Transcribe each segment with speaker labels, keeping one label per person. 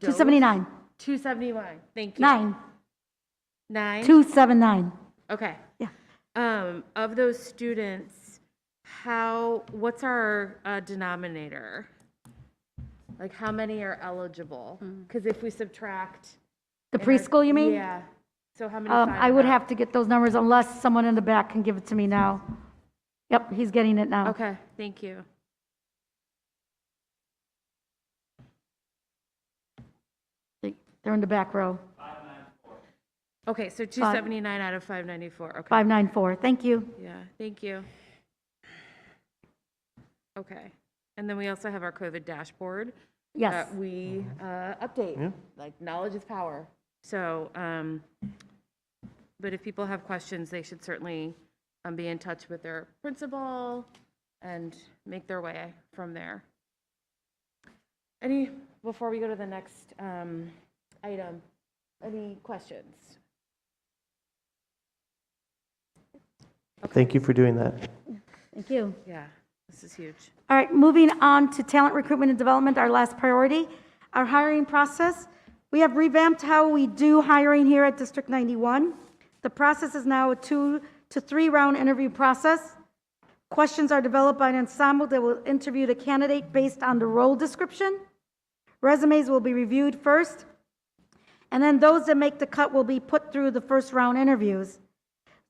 Speaker 1: 279,
Speaker 2: 271, thank you.
Speaker 1: nine,
Speaker 2: Nine?
Speaker 1: 279.
Speaker 2: Okay.
Speaker 1: Yeah.
Speaker 2: Um, of those students, how, what's our uh, denominator? Like, how many are eligible? Because if we subtract.
Speaker 1: Mm. The
Speaker 2: and our-
Speaker 1: preschool, you mean?
Speaker 2: Yeah. So how many?
Speaker 1: Um,
Speaker 2: find
Speaker 1: I would
Speaker 2: out?
Speaker 1: have to get those numbers unless someone in the back can give it to me now. Yep, he's getting it now.
Speaker 2: Okay, thank you.
Speaker 1: They're in the back row.
Speaker 2: Okay, so 279 out of 594, okay.
Speaker 1: 594, thank you.
Speaker 2: Yeah, thank you. Okay. And then we also have our COVID dashboard.
Speaker 1: Yes,
Speaker 2: that we uh, update. Like, knowledge is power. So, um, but if people have questions, they should certainly um, be in touch with their principal and make their way from there. Any, before we go to the next um, item, any questions?
Speaker 3: Thank you for doing that.
Speaker 1: thank you.
Speaker 2: Yeah, this is huge.
Speaker 1: All right, moving on to talent recruitment and development, our last priority, our hiring process. We have revamped how we do hiring here at District 91. The process is now a two to three round interview process. Questions are developed by an ensemble that will interview the candidate based on the role description. Resumes will be reviewed first, and then those that make the cut will be put through the first round interviews.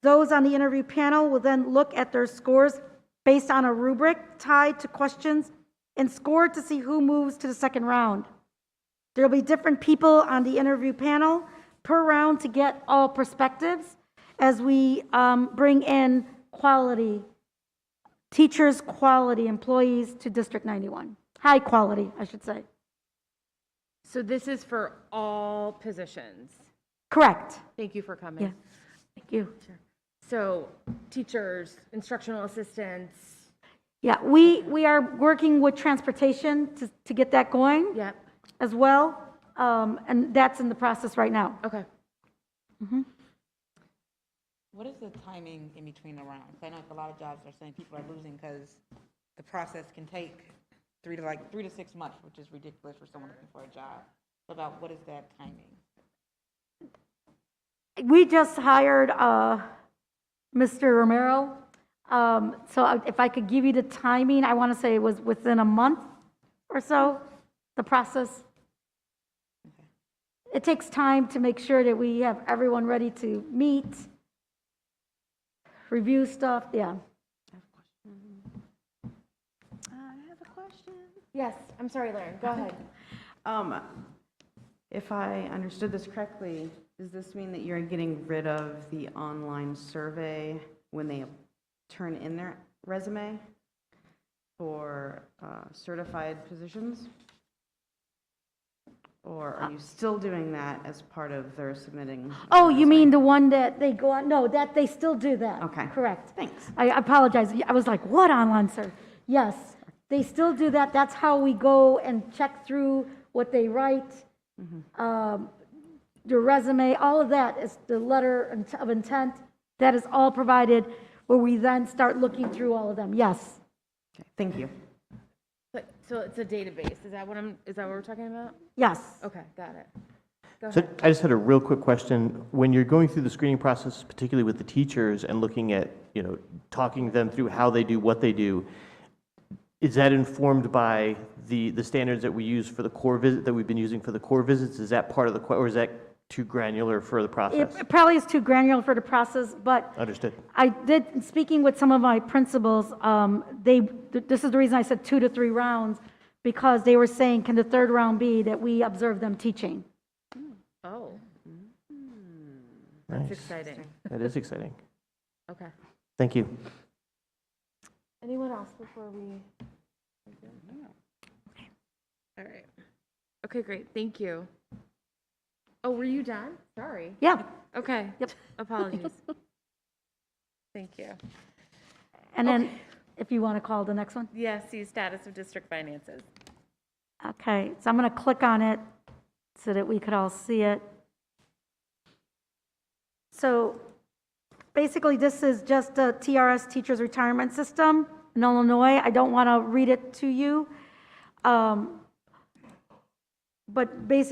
Speaker 1: Those on the interview panel will then look at their scores based on a rubric tied to questions and scored to see who moves to the second round. There'll be different people on the interview panel per round to get all perspectives as we um, bring in quality, teachers, quality employees to District 91. High quality, I should say.
Speaker 2: So this is for all positions.
Speaker 1: Correct.
Speaker 2: Thank you for coming.
Speaker 1: Yeah. Thank you.
Speaker 2: So teachers, instructional assistants,
Speaker 1: Yeah, we, we are working with transportation to, to get that going.
Speaker 2: yep,
Speaker 1: as well, um, and that's in the process right now.
Speaker 2: okay.
Speaker 4: What is the timing in between the rounds? I know a lot of jobs are saying people are losing because the process can take three to like, three to six months, which is ridiculous for someone looking for a job. About what is that timing?
Speaker 1: We just hired uh, Mr. Romero, um, so I- if I could give you the timing, I want to say it was within a month or so, the process. It takes time to make sure that we have everyone ready to meet, review stuff, yeah.
Speaker 2: Yes, I'm sorry, Lauren, go ahead.
Speaker 5: Um, If I understood this correctly, does this mean that you're getting rid of the online survey when they turn in their resume for uh, certified positions? Or are you still doing that as part of their submitting?
Speaker 1: Oh, you mean the one that they go on, no, that, they still do that.
Speaker 5: Okay.
Speaker 1: Correct.
Speaker 5: Thanks.
Speaker 1: I apologize, I was like, what online, sir? Yes, they still do that, that's how we go and check through what they write,
Speaker 5: Mm-hmm.
Speaker 1: um, your resume, all of that is the letter of intent, that is all provided, where we then start looking through all of them, yes.
Speaker 5: Okay, Thank you.
Speaker 2: But, so it's a database, is that what I'm, is that what we're talking about?
Speaker 1: Yes,
Speaker 2: Okay, got it. Go
Speaker 3: So
Speaker 2: ahead.
Speaker 3: I just had a real quick question. When you're going through the screening process, particularly with the teachers and looking at, you know, talking them through how they do what they do, is that informed by the, the standards that we use for the core visit, that we've been using for the core visits? Is that part of the, que- or is that too granular for the
Speaker 1: it
Speaker 3: process?
Speaker 1: it probably is too granular for the process, but
Speaker 3: Understood.
Speaker 1: I did, speaking with some of my principals, um, they, th- this is the reason I said two to three rounds, because they were saying, can the third round be that we observe them teaching?
Speaker 2: Oh,
Speaker 3: Nice.
Speaker 2: it's exciting.
Speaker 3: That is exciting.
Speaker 2: Okay.
Speaker 3: Thank you.
Speaker 2: Anyone else before we? All right. Okay, great, thank you. Oh, were you done? Sorry.
Speaker 1: Yeah.
Speaker 2: Okay.
Speaker 1: Yep.
Speaker 2: Apologies. Thank you.
Speaker 1: And then, if you want to call the next one.
Speaker 2: Yes, see status of district finances.
Speaker 1: Okay, so I'm going to click on it so that we could all see it. So basically, this is just a TRS teacher's retirement system in Illinois. I don't want to read it to you. Um, But basically,